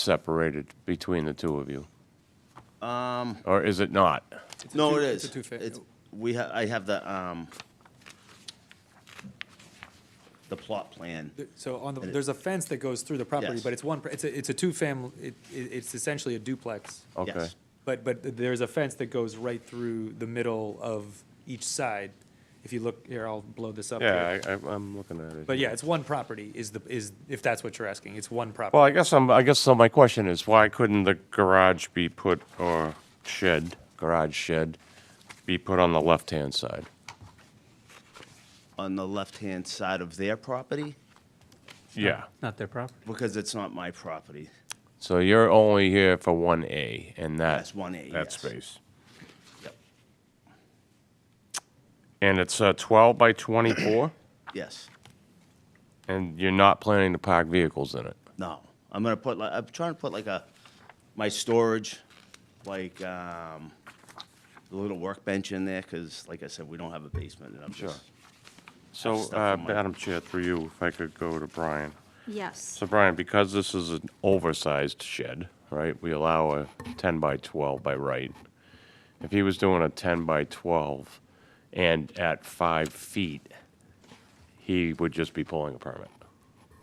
separated between the two of you? Um, Or is it not? It's a no, two- it it's is. a two-fa- It's, we ha, I have the, um, the plot plan. So on the, It is. there's a fence that goes through the property, Yes. but it's one, it's a, it's a two-family, it, it- it's essentially a duplex. Okay. Yes. But, but there's a fence that goes right through the middle of each side. If you look, here, I'll blow this up. here. Yeah, I, I- I'm looking at it. But yeah, it's one property is the, is, if that's what you're asking, it's one Well, property. I guess I'm, I guess so my question is, why couldn't the garage be put, or shed, garage shed, be put on the left-hand side? On the left-hand side of their property, Yeah. Not their property. because it's not my property. So you're only here for one A and that. That's 1A, That yes. space. Yep. And it's uh, 12 by 24, Yes, and you're not planning to park vehicles in it? no. I'm gonna put, like, I'm trying to put like a, my storage, like, um, a little workbench in there, because like I said, we don't have a basement, and I'm Sure. just, So, stuff uh, on my- Madam Chair, through you, if I could go to Brian. Yes, So Brian, because this is an oversized shed, right, we allow a 10 by 12 by right. If he was doing a 10 by 12 and at five feet, he would just be pulling a permit.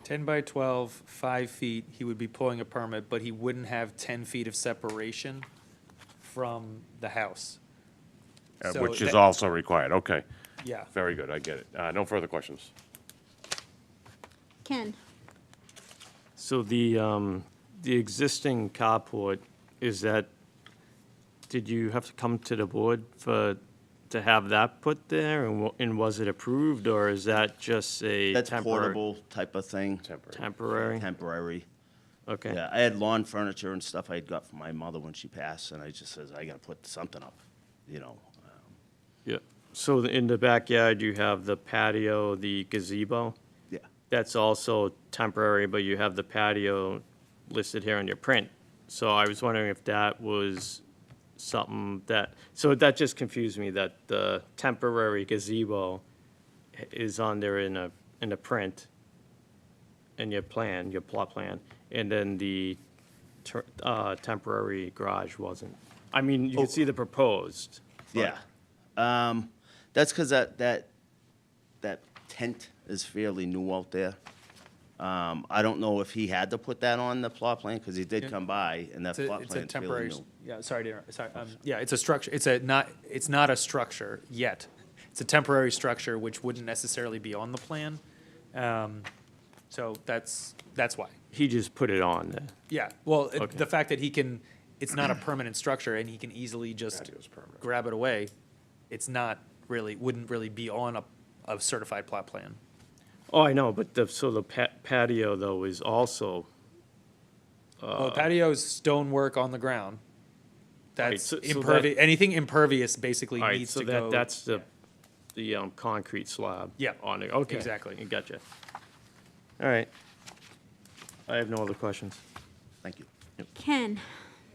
Ten by twelve, five feet, he would be pulling a permit, but he wouldn't have ten feet of separation from the house. uh, So Which is that- also required, okay. Yeah. Very good, I get it. Uh, No further questions. Ken, So the, um, the existing carport, is that, did you have to come to the board for, to have that put there? And wa- and was it approved, or is that just a that's temporary? portable type of thing, Temporary. Temporary? temporary. Okay. Yeah, I had lawn furniture and stuff I had got from my mother when she passed, and I just says, I gotta put something up, you know. um, Yeah. So the- in the backyard, you have the patio, the gazebo? Yeah, That's also temporary, but you have the patio listed here on your print. So I was wondering if that was something that, so that just confused me, that the temporary gazebo i- is on there in a, in a print, in your plan, your plot plan, and then the ter- uh, temporary garage wasn't. I mean, you can see the proposed. but- yeah. Um, that's because that, that, that tent is fairly new out there. Um, I don't know if he had to put that on the plot plan, because he did Yeah. come by, and that It's a, plot it's a plan's fairly temporary, new. yeah, sorry to interrupt, sorry, um, yeah, it's a structure, it's a not, it's not a structure yet. It's a temporary structure which wouldn't necessarily be on the plan. Um, so that's, that's why. He just put it on there. Yeah, well, it- Okay. the fact that he can, it's not a permanent structure and he can easily just grab it away, it's not really, wouldn't really be on a, a certified plot plan. Oh, I know, but the, so the pa- patio, though, is also Well, Oh, patio's stonework on the ground. That's so- so that- impervious, anything impervious basically All right, needs so to that, go. that's the, the um, concrete slab. Yeah, On it, okay. exactly. I Gotcha. All right. I have no other questions. Thank you. Ken,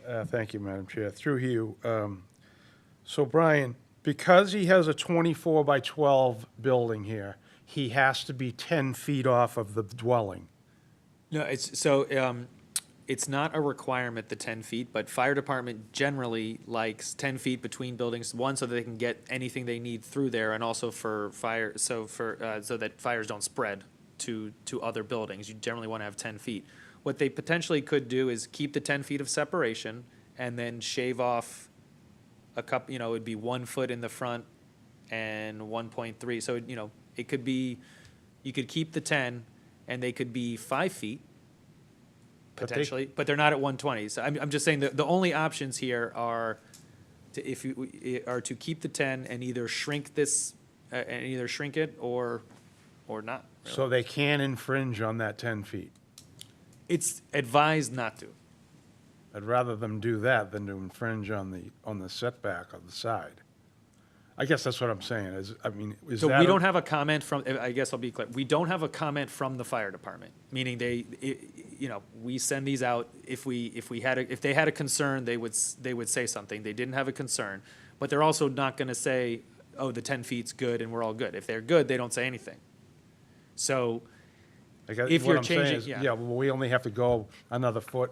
Uh, Thank you, Madam Chair. Through you. um, So Brian, because he has a 24 by 12 building here, he has to be 10 feet off of the dwelling. No, it's, so, um, it's not a requirement, the ten feet, but fire department generally likes ten feet between buildings, one, so that they can get anything they need through there, and also for fire, so for, uh, so that fires don't spread to, to other buildings, you generally wanna have ten feet. What they potentially could do is keep the ten feet of separation, and then shave off a cup, you know, it'd be one foot in the front and one point three. So, you know, it could be, you could keep the ten and they could be five feet But they- potentially, but they're not at one twenty. So I'm, I'm just saying that the only options here are to, if you, i- are to keep the ten and either shrink this, uh, and either shrink it or, or not. really. So they can infringe on that 10 feet. It's advised not to. I'd rather them do that than to infringe on the, on the setback on the side. I guess that's what I'm saying, is, I mean, is So that... we a- don't have a comment from, eh, I guess I'll be clear, we don't have a comment from the fire department, meaning they, i- you know, we send these out, if we, if we had, a if they had a concern, they would, s- they would say something, they didn't have a concern, but they're also not gonna say, oh, the ten feet's good and we're all good, if they're good, they don't say anything. So I guess If what you're I'm saying changing- is, yeah. Yeah, well, we only have to go another foot